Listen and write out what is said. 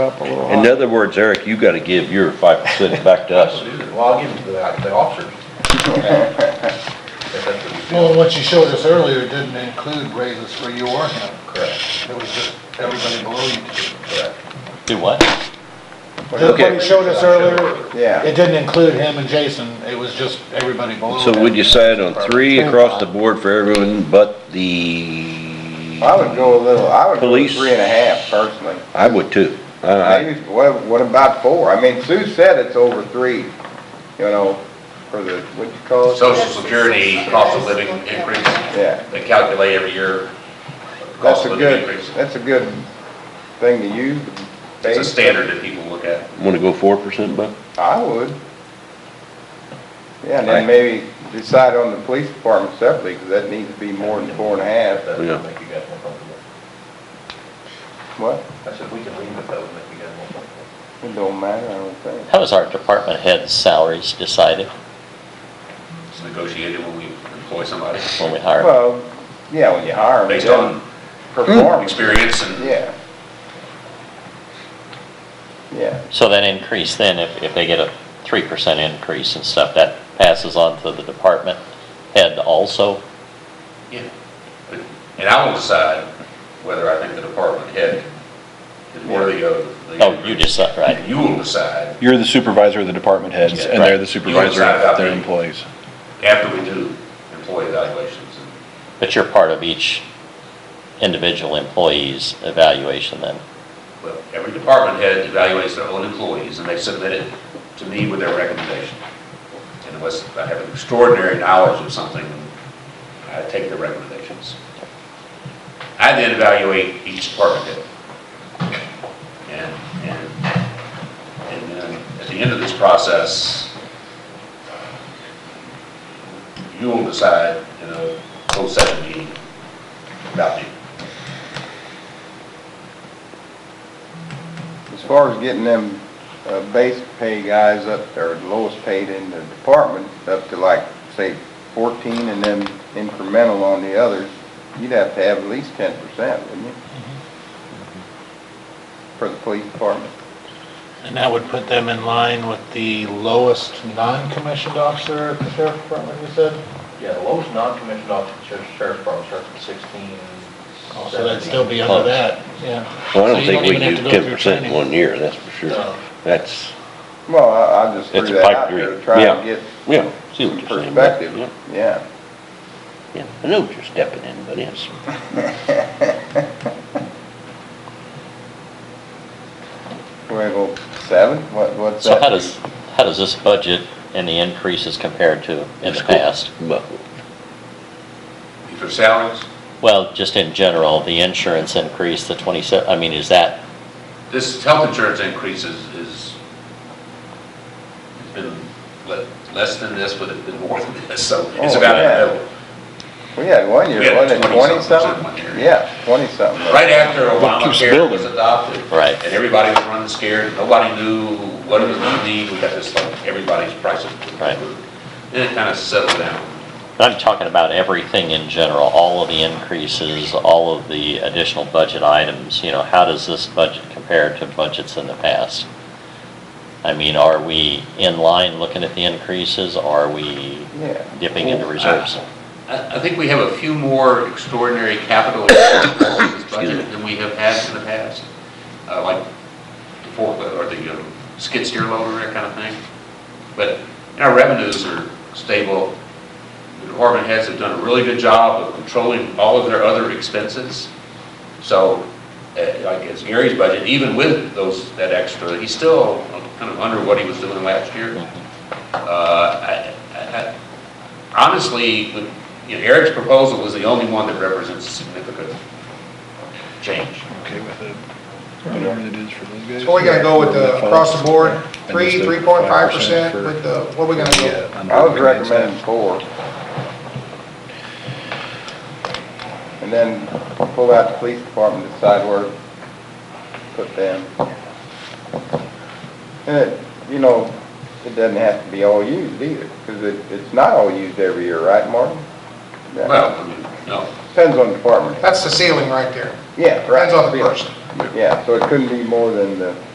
up a little In high. other words, Eric, you gotta give your five percent back to us. Well, I'll give it to the, the officers. If that's what you feel. Well, what you showed us earlier didn't include raises for you or him. Correct, It was just everybody below you. correct. Do what? Just what Okay. you showed us earlier, Yeah, it didn't include him and Jason, it was just everybody below So him. would you decide on three across the board for everyone but the? I would go a little, I would go Police. three and a half personally. I would too. I- I- Maybe, what, what about four? I mean, Sue said it's over three, you know, for the, what you call it? Social Security cost of living increase, Yeah, they calculate every year. that's Cost a of living good, increase. that's a good thing to use. to It's a base. standard that people look at. Wanna go four percent, Bud? I would. Yeah, and Right. then maybe decide on the police department separately, because that needs to be more than four and a half. That Yeah. would make you guys more comfortable. What? I said, we can leave it, that would make you guys more comfortable. It don't matter, I don't think. How is our department head's salaries decided It's negotiated when we employ somebody, when we hire? them? Well, yeah, when you hire them. based on Performance, experience and. yeah. Yeah, So that increase then, if, if they get a three percent increase and stuff, that passes on to the department head also? Yeah, and I will decide whether I think the department head is worthy of the. Oh, you decide, right? You will decide You're the supervisor of the department heads, and Right. they're the supervisor of their employees. after we do employee evaluations. and But you're part of each individual employee's evaluation then? Well, every department head evaluates their own employees, and they submit it to me with their recommendation. And unless I have extraordinary knowledge of something, I take their recommendations. I then evaluate each department head. And, and, and then at the end of this process, you will decide in a closed session meeting about the as far as getting them, uh, base pay guys up, or lowest paid in the department, up to like, say, fourteen, and then incremental on the others, you'd have to have at least ten percent, wouldn't you? Mm-hmm. For the police department, And that would put them in line with the lowest non-commissioned officer at the sheriff's department, you said? Yeah, the lowest non-commissioned officer, sheriff- sheriff's department starts at sixteen. Oh, So that'd still be under that, yeah. Well, I So don't you think we even have can to do go through ten percent in training. Oh. one year, that's for sure. No. That's, well, I, I just It's threw a that pipe out there, dream. to try Yeah. to get yeah, see what some you're saying. Bud. Yeah, perspective, yeah. Yeah, I know what you're stepping in, but yes. We're gonna go seven, what, what's that? So how does, how does this budget and the increases compare to in the School. past? Well, If their salaries, Well, just in general, the insurance increase, the twenty-seven, I mean, is that, this health insurance increase is, is, it's been le- less than this, but it's been more than this, so it's Oh, about in yeah. the middle. We had one year, We had wasn't it 20 twenty something something? one year. Yeah, twenty something. Right after keeps Obamacare building. was adopted. Right. And everybody was running scared, nobody knew what it was gonna mean, we got this, like, everybody's prices. Right. Then it kind of settled down. I'm talking about everything in general, all of the increases, all of the additional budget items, you know, how does this budget compare to budgets in the past? I mean, are we in line looking at the increases, are we Yeah. dipping into reserves? I, I think we have a few more extraordinary capital expenses in this budget than we have had in the past, uh, like the forklift, or the, you know, skid steer loader, that kind of thing. But our revenues are stable. The department heads have done a really good job of controlling all of their other expenses. So, uh, like, it's Gary's budget, even with those, that extra, he's still kind of under what he was doing last year. Uh, I, I, I- honestly, with- you know, Eric's proposal is the only one that represents significant change. Okay with it, whatever it is for those guys. So we're gonna go with the, across the board, And three, just the three point five percent, 5% with the, what are we gonna for- go? Yeah, under I would recommends that. recommend four. And then pull out the police department, decide where to put them. And, it- you know, it doesn't have to be all used either, because it, it's not all used every year, right, Martin? Yeah. Well, I mean, no, Depends on department. That's the ceiling right there. Yeah, right. Depends on the person. Yeah, so it couldn't be more than the